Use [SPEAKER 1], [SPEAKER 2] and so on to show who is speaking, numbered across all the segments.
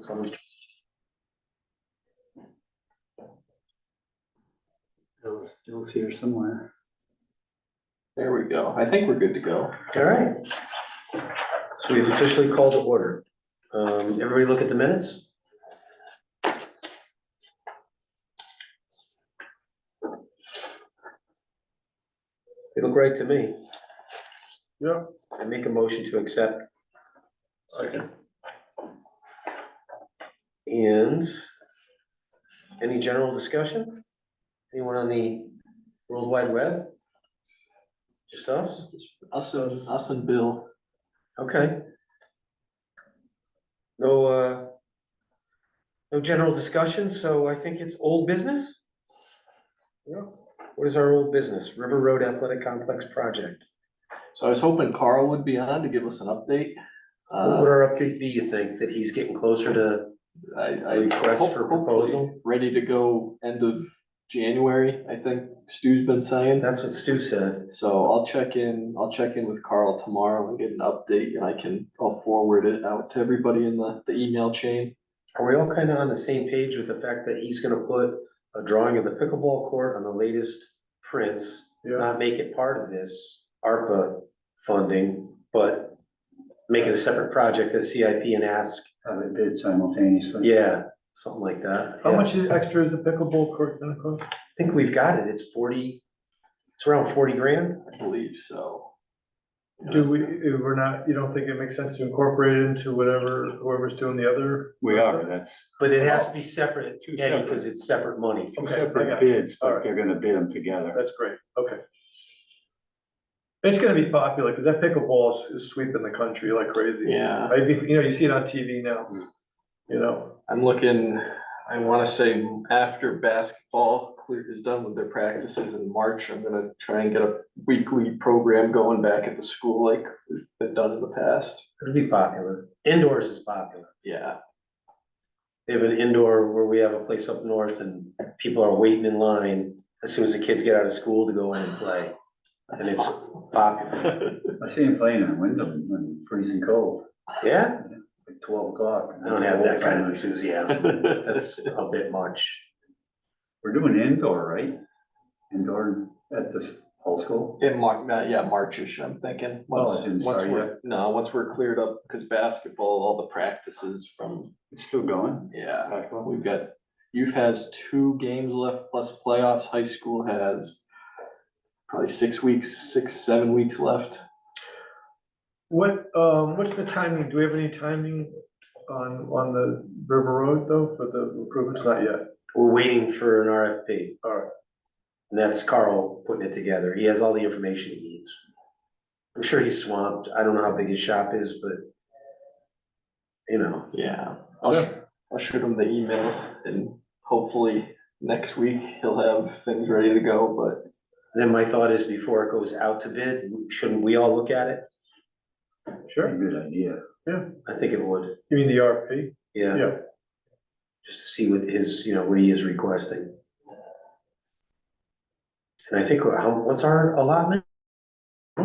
[SPEAKER 1] Someone's-
[SPEAKER 2] Bill's, Bill's here somewhere.
[SPEAKER 3] There we go. I think we're good to go.
[SPEAKER 1] All right. So we've officially called to order. Um, everybody look at the minutes? They look right to me. Yeah. I make a motion to accept. Second. And any general discussion? Anyone on the World Wide Web? Just us?
[SPEAKER 3] Us and, us and Bill.
[SPEAKER 1] Okay. No, uh, no general discussion, so I think it's old business? Yeah. What is our old business? River Road Athletic Complex Project.
[SPEAKER 3] So I was hoping Carl would be on to give us an update.
[SPEAKER 1] What would
[SPEAKER 3] Uh,
[SPEAKER 1] our update be, you think, that he's getting closer to
[SPEAKER 3] I, I.
[SPEAKER 1] request
[SPEAKER 3] hope-
[SPEAKER 1] for
[SPEAKER 3] hopefully
[SPEAKER 1] proposal?
[SPEAKER 3] Ready to go end of January, I think Stu's been saying.
[SPEAKER 1] That's what Stu said.
[SPEAKER 3] So I'll check in, I'll check in with Carl tomorrow and get an update and I can, I'll forward it out to everybody in the, the email chain.
[SPEAKER 1] Are we all kind of on the same page with the fact that he's gonna put a drawing of the pickleball court on the latest prints? Not make it part of this ARPA funding, but make it a separate project, a CIP and ask,
[SPEAKER 2] Uh, they bid simultaneously.
[SPEAKER 1] yeah, something like that.
[SPEAKER 4] How
[SPEAKER 1] yeah.
[SPEAKER 4] much is extra is the pickleball court gonna cost?
[SPEAKER 1] I think we've got it, it's forty, it's around forty grand.
[SPEAKER 3] I believe so.
[SPEAKER 4] Do we, if we're not, you don't think it makes sense to incorporate it into whatever, whoever's doing the other?
[SPEAKER 2] We are, that's
[SPEAKER 1] But it has to be separate,
[SPEAKER 2] Two
[SPEAKER 1] Eddie,
[SPEAKER 2] separate.
[SPEAKER 1] because it's separate money.
[SPEAKER 2] two
[SPEAKER 4] Okay, I
[SPEAKER 2] separate
[SPEAKER 4] got you.
[SPEAKER 2] bids, but
[SPEAKER 4] Alright.
[SPEAKER 2] they're gonna bid them together.
[SPEAKER 4] That's great, okay. It's gonna be popular, because that pickleball is- is sweeping the country like crazy.
[SPEAKER 3] Yeah.
[SPEAKER 4] I, think- you know, you see it on TV now, you know,
[SPEAKER 3] I'm looking, I wanna say after basketball clear is done with their practices in March, I'm gonna try and get a weekly program going back at the school like has been done in the past.
[SPEAKER 1] It'll be popular, indoors is popular.
[SPEAKER 3] Yeah,
[SPEAKER 1] They have an indoor where we have a place up north and people are waiting in line as soon as the kids get out of school to go in and play.
[SPEAKER 3] that's
[SPEAKER 1] it's-
[SPEAKER 3] awesome.
[SPEAKER 1] Popular,
[SPEAKER 2] I see him playing in Wyndham when freezing cold,
[SPEAKER 1] yeah,
[SPEAKER 2] like twelve o'clock.
[SPEAKER 1] I don't have that kind of enthusiasm, that's a bit much.
[SPEAKER 2] We're doing indoor, right? Indoor at this whole school?
[SPEAKER 3] In Mar- uh, yeah, Marchish, I'm thinking,
[SPEAKER 2] Oh,
[SPEAKER 3] once,
[SPEAKER 2] I didn't
[SPEAKER 3] once
[SPEAKER 2] start
[SPEAKER 3] we're, no, once we're cleared up, cause basketball, all the practices from,
[SPEAKER 2] It's still going?
[SPEAKER 3] yeah.
[SPEAKER 2] Basketball?
[SPEAKER 3] We've got, youth has two games left plus playoffs, high school has probably six weeks, six, seven weeks left.
[SPEAKER 4] what, um, what's the timing, do we have any timing on, on the River Road though, for the improvements, not yet?
[SPEAKER 1] We're waiting for an RFP.
[SPEAKER 4] All right.
[SPEAKER 1] And that's Carl putting it together. He has all the information he needs. I'm sure he's swamped. I don't know how big his shop is, but you know,
[SPEAKER 3] Yeah, I'll, sh- I'll shoot him the email and hopefully next week he'll have things ready to go, but
[SPEAKER 1] then my thought is before it goes out to bid, shouldn't we all look at it?
[SPEAKER 4] Sure,
[SPEAKER 2] Good idea.
[SPEAKER 1] I think it would,
[SPEAKER 4] you mean the RFP?
[SPEAKER 1] yeah,
[SPEAKER 4] Yeah,
[SPEAKER 1] just to see what his, you know, what he is requesting. And I think, how, what's our allotment?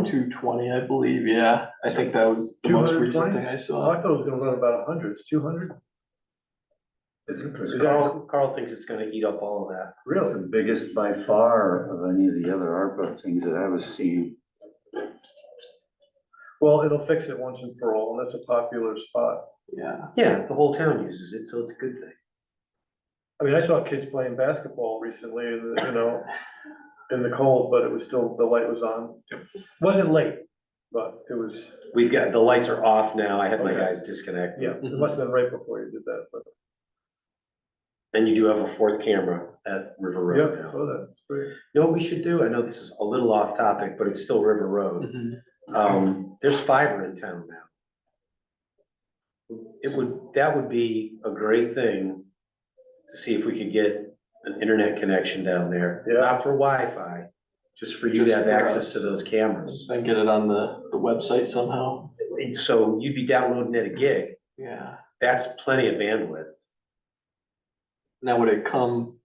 [SPEAKER 3] two twenty, I believe, yeah. I think that was the most recent
[SPEAKER 4] 220?
[SPEAKER 3] thing I
[SPEAKER 4] I
[SPEAKER 3] saw.
[SPEAKER 4] thought it was gonna run about a hundred, it's two hundred,
[SPEAKER 2] It's
[SPEAKER 4] Is
[SPEAKER 2] interesting.
[SPEAKER 4] that-
[SPEAKER 1] Carl, Carl thinks it's gonna eat up all of that.
[SPEAKER 4] really?
[SPEAKER 2] It's the biggest by far of any of the other ARPA things that I was seeing.
[SPEAKER 4] Well, it'll fix it once and for all, and that's a popular spot.
[SPEAKER 3] Yeah,
[SPEAKER 1] Yeah, the whole town uses it, so it's a good thing.
[SPEAKER 4] I mean, I saw kids playing basketball recently, in the- you know, in the cold, but it was still, the light was on. Wasn't late, but it was,
[SPEAKER 1] We've got, the lights are off now. I had my
[SPEAKER 4] Okay.
[SPEAKER 1] guys disconnect.
[SPEAKER 4] yeah, it must have been right before you did that, but,
[SPEAKER 1] And you do have a fourth camera at River Road
[SPEAKER 4] yeah,
[SPEAKER 1] now.
[SPEAKER 4] so that's great.
[SPEAKER 1] You know what we should do? I know this is a little off topic, but it's still River Road.
[SPEAKER 3] Mhm.
[SPEAKER 1] Um, there's fiber in town now. It would, that would be a great thing to see if we could get an internet connection down there.
[SPEAKER 4] Yeah.
[SPEAKER 1] Not for Wi-Fi, just for you to
[SPEAKER 3] Just
[SPEAKER 1] have
[SPEAKER 3] for
[SPEAKER 1] access
[SPEAKER 3] us.
[SPEAKER 1] to those cameras.
[SPEAKER 3] then get it on the, the website somehow,
[SPEAKER 1] And so you'd be downloading at a gig.
[SPEAKER 3] yeah.
[SPEAKER 1] That's plenty of bandwidth.
[SPEAKER 3] Now, would it come,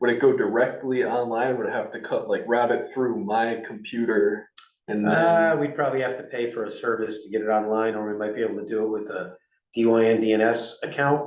[SPEAKER 3] would it go directly online, would it have to cut, like route it through my computer? And then,
[SPEAKER 1] Uh, we'd probably have to pay for a service to get it online, or we might be able to do it with a DYN DNS account.